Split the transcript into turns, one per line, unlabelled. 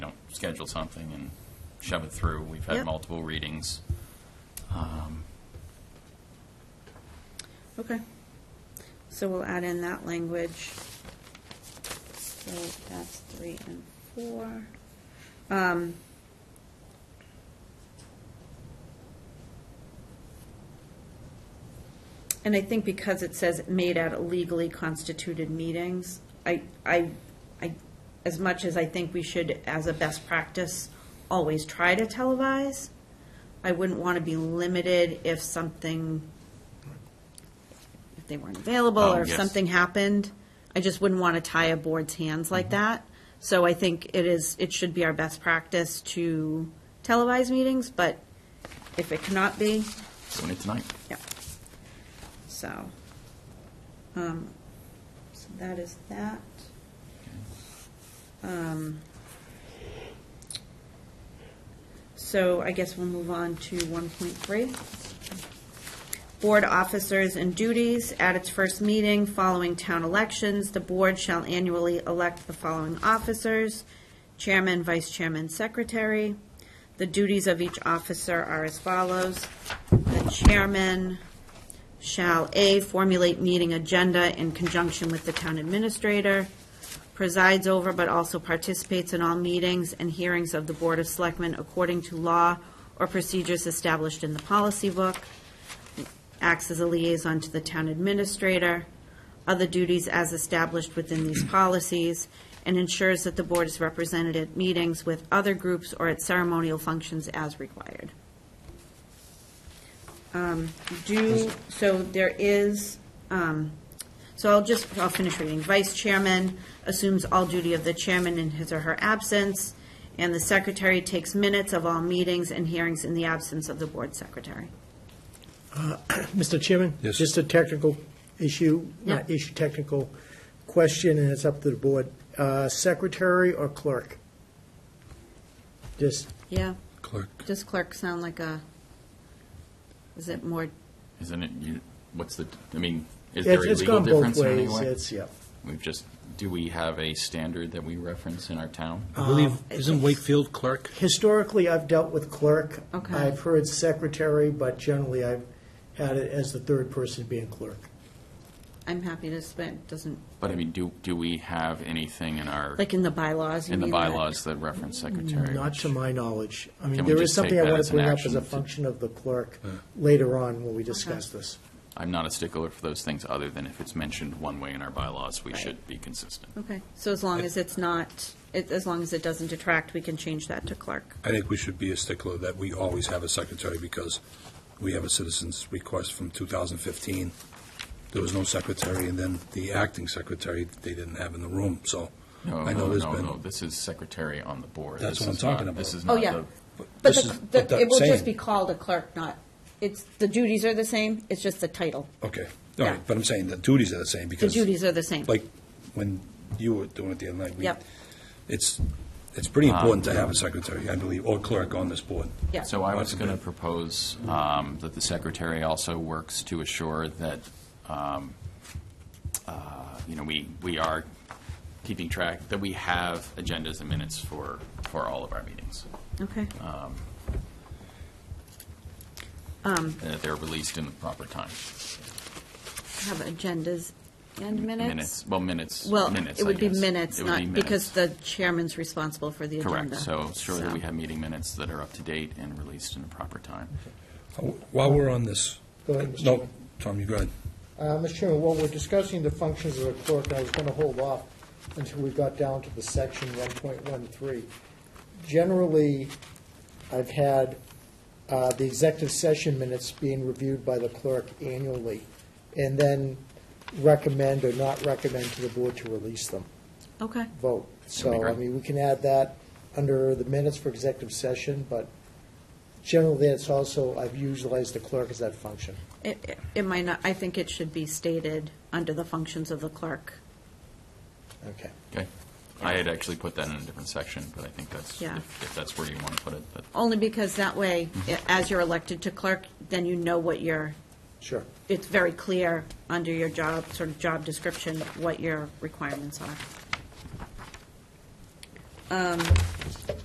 schedule something and shove it through. We've had
Yep.
multiple readings.
Okay. So we'll add in that language. So that's three and four. Um, And I think because it says made at legally constituted meetings, I, I, I, as much as I think we should, as a best practice, always try to televise, I wouldn't want to be limited if something, if they weren't available
Oh,
or if
yes.
something happened. I just wouldn't want to tie a board's hands like
Mm-hmm.
that. So I think it is, it should be our best practice to televise meetings, but if it cannot be,
Doing it tonight.
yeah. So, um, so that is that. Um, so I guess we'll move on to one point three. Board officers and duties. At its first meeting following town elections, the board shall annually elect the following officers, chairman, vice chairman, secretary. The duties of each officer are as follows. The chairman shall, A, formulate meeting agenda in conjunction with the town administrator, presides over but also participates in all meetings and hearings of the Board of Selectmen according to law or procedures established in the policy book, acts as a liaison to the town administrator, other duties as established within these policies, and ensures that the board is represented at meetings with other groups or at ceremonial functions as required. Um, Do, so there is, um, so I'll just, I'll finish reading. Vice chairman assumes all duty of the chairman in his or her absence, and the secretary takes minutes of all meetings and hearings in the absence of the board secretary.
Mr. Chairman?
Yes.
Just a technical issue, not
Yeah.
issue, technical question, and it's up to the board. Uh, Secretary or clerk? Just,
Yeah.
Clerk.
Does clerk sound like a, is it more,
Isn't it, you- what's the, I mean, is there
it's
a
it's
legal
gone both
difference in any
ways.
way?
It's, yeah.
We've just, do we have a standard that we reference in our town?
I believe,
Uh,
isn't Wakefield clerk?
Historically, I've dealt with clerk.
Okay.
I've heard secretary, but generally I've had it as the third person being clerk.
I'm happy to spend, doesn't,
But I mean, do, do we have anything in our,
like in the bylaws? you
in the
mean, like-
bylaws that reference secretary?
Not
which-
to my knowledge. I mean,
Can we
there is
just take
something I
that
want
as
to
an
bring up
action
as a
to-
function of the clerk later on when we discuss this.
I'm not a stickler for those things, other than if it's mentioned one way in our bylaws, we should be consistent.
Okay, so as long as it's not, it- as long as it doesn't detract, we can change that to clerk.
I think we should be a stickler that we always have a secretary because we have a citizen's request from 2015. There was no secretary, and then the acting secretary, they didn't have in the room, so
No,
I know
no,
there's
no,
been.
no, this is secretary on the board.
That's
This
what I'm
is not-
talking about.
This is
Oh,
not
yeah.
the,
But
this
the-
is-
the-
but that
it will just
same-
be called a clerk, not, it's, the duties are the same, it's just the title.
Okay, all
Yeah.
right, but I'm saying the duties are the same
The
because.
duties are the same.
Like, when you were doing it the other night. we-
Yep.
It's, it's pretty important to have a secretary, I believe, or clerk on this board.
Yeah.
So I was going to propose um, that the secretary also works to assure that, um, uh, you know, we, we are keeping track, that we have agendas and minutes for, for all of our meetings.
Okay,
Uh, and That they're released in the proper time.
have agendas and minutes?
Well, minutes,
Well,
minutes,
it
I
would be
guess.
minutes,
It would be
not, because
minutes.
the chairman's responsible for the agenda.
Correct, so ensure that we have meeting minutes that are up to date and released in the proper time.
While we're on this,
Go ahead, Mr.
no,
Chairman.
Tom, you go ahead.
Uh, Mr. Chairman, while we're discussing the functions of the clerk, I was going to hold off until we got down to the section 1.13. Generally, I've had uh, the executive session minutes being reviewed by the clerk annually, and then recommend or not recommend to the board to release them,
Okay,
vote.
That'd be
So, I
great.
mean, we can add that under the minutes for executive session, but generally, it's also, I've utilized the clerk as that function.
it, it- it might not, I think it should be stated under the functions of the clerk.
Okay.
Okay? I had actually put that in a different section, but I think that's,
Yeah.
if if that's where you want to put it, that
Only because that way, i- as you're elected to clerk, then you know what your,
Sure.
it's very clear under your job, sort of job description, what your requirements are. Um,